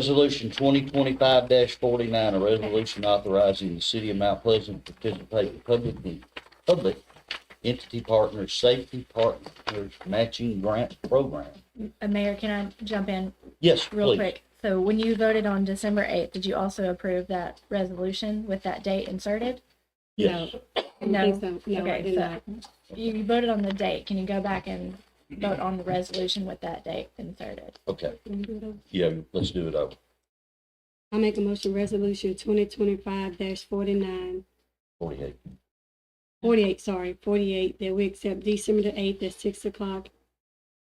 Resolution twenty twenty-five forty-nine, a resolution authorizing the city of Mount Pleasant to participate in public, public entity partners, safety partners matching grant program. Uh, Mayor, can I jump in Yes, real please. quick? So when you voted on December 8th, did you also approve that resolution with that date inserted? Yes. I don't think so. No, I Okay, did so- not. You you voted on the date. Can you go back and vote on the resolution with that date inserted? Okay, Can we do it over? yeah, let's do it over. I make a motion, resolution twenty twenty-five dash forty-nine, Forty-eight. forty-eight, sorry, forty-eight, that we accept December the eighth at six o'clock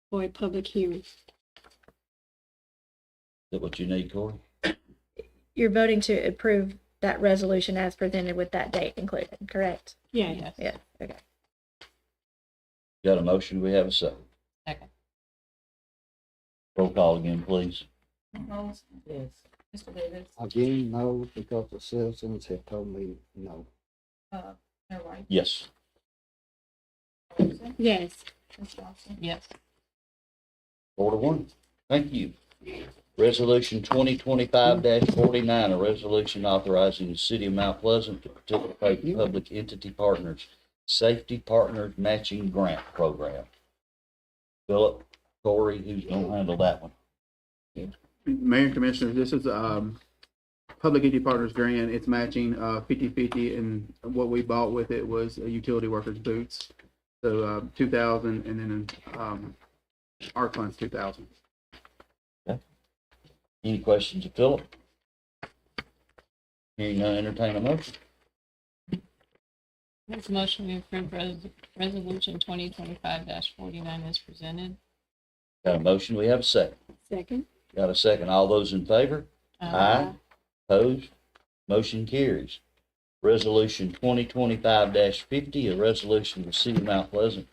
for a public hearing. Is that what you need, Corey? You're voting to approve that resolution as presented with that date included, correct? Yeah, Yeah, okay. Got a motion, we have a second. Second. Roll call again, please. Holmes? Yes. Mr. Davis? Again, no, because the citizens have told me no. Uh, Mayor White? Yes. Wilson? yes. Ms. Johnson? Yes. Four to one. Thank you. Resolution twenty twenty-five forty-nine, a resolution authorizing the city of Mount Pleasant to participate in public entity partners, safety partners matching grant program. Philip, Corey, who's gonna handle that one? Mayor and Commissioners, this is, um, Public Entity Partners Grant, it's matching, uh, fifty-fifty, and what we bought with it was a utility workers' boots. So, uh, two thousand, and then, um, our funds, two thousand. Any questions of Philip? Hearing none, entertain a motion. Make a motion to approve res- resolution twenty twenty-five forty-nine as presented. Got a motion, we have a second. Second, Got a second. All those in favor? Um, Aye. Opposed? Motion carries. Resolution twenty twenty-five fifty, a resolution of the city of Mount Pleasant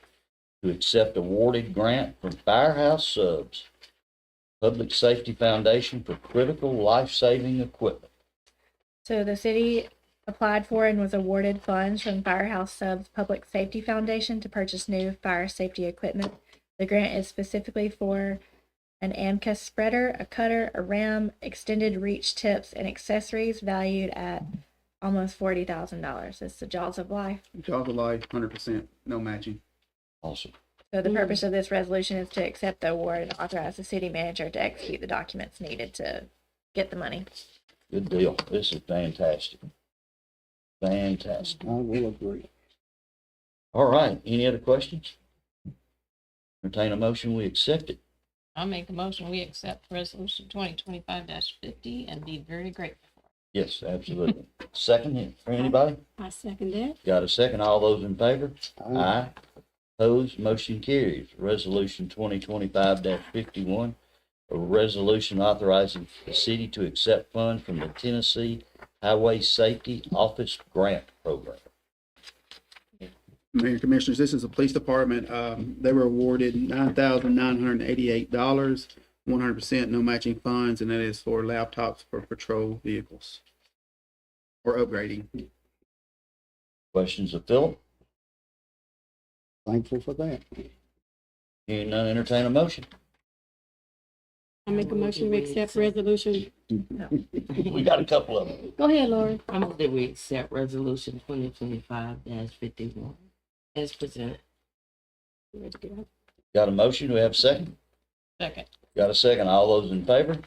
to accept awarded grant from Firehouse Subs, Public Safety Foundation for critical life-saving equipment. So the city applied for and was awarded funds from Firehouse Subs Public Safety Foundation to purchase new fire safety equipment. The grant is specifically for an AMCA spreader, a cutter, a ram, extended reach tips, and accessories valued at almost forty thousand dollars. It's the jaws of life. Jaws of life, hundred percent, no matching. Awesome. So the purpose of this resolution is to accept the award and authorize the city manager to execute the documents needed to get the money. Good deal. This is fantastic. Fantastic. I will agree. All right. Any other questions? Entertain a motion, we accept it. I'll make a motion, we accept resolution twenty twenty-five fifty and be very grateful. Yes, absolutely. Second, it for anybody? I second that. Got a second? All those in favor? Aye. Aye. Opposed, motion carries. Resolution twenty twenty-five fifty-one, a resolution authorizing the city to accept funds from the Tennessee Highway Safety Office Grant Program. Mayor and Commissioners, this is the police department, um, they were awarded nine thousand nine hundred and eighty-eight dollars, one hundred percent, no matching funds, and that is for laptops for patrol vehicles. Or upgrading. Questions of Philip? Thankful for that. Hearing none, entertain a motion. I make a motion, we accept resolution. We got a couple of them. Go ahead, Laura. I move that we accept resolution twenty twenty-five dash fifty-one as presented. Got a motion, do we have a second? Second. Got a second? All those in favor?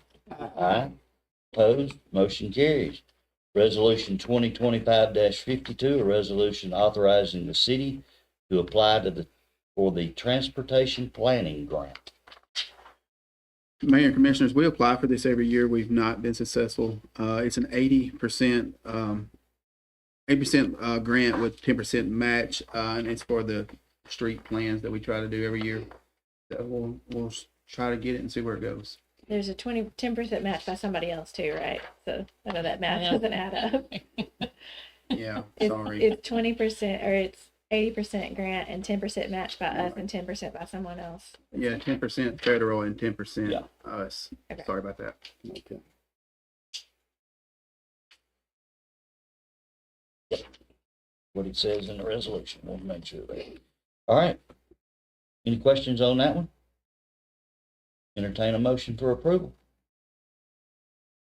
Aye. Opposed? Motion carries. Resolution twenty twenty-five fifty-two, a resolution authorizing the city to apply to the, for the transportation planning grant. Mayor and Commissioners, we apply for this every year. We've not been successful. Uh, it's an eighty percent, um, eighty percent, uh, grant with ten percent match, uh, and it's for the street plans that we try to do every year. That we'll, we'll s- try to get it and see where it goes. There's a 20 10 percent match by somebody else too, right? So I know that math Yeah. doesn't add up. Yeah, It's, sorry. it's twenty percent or it's eighty percent grant and ten percent matched by us and ten percent by someone else. Yeah, ten percent federal and ten percent Yeah. us. Okay. Sorry about that. Okay. What it says in the resolution, we'll make sure of that. All right. Any questions on that one? Entertain a motion for approval.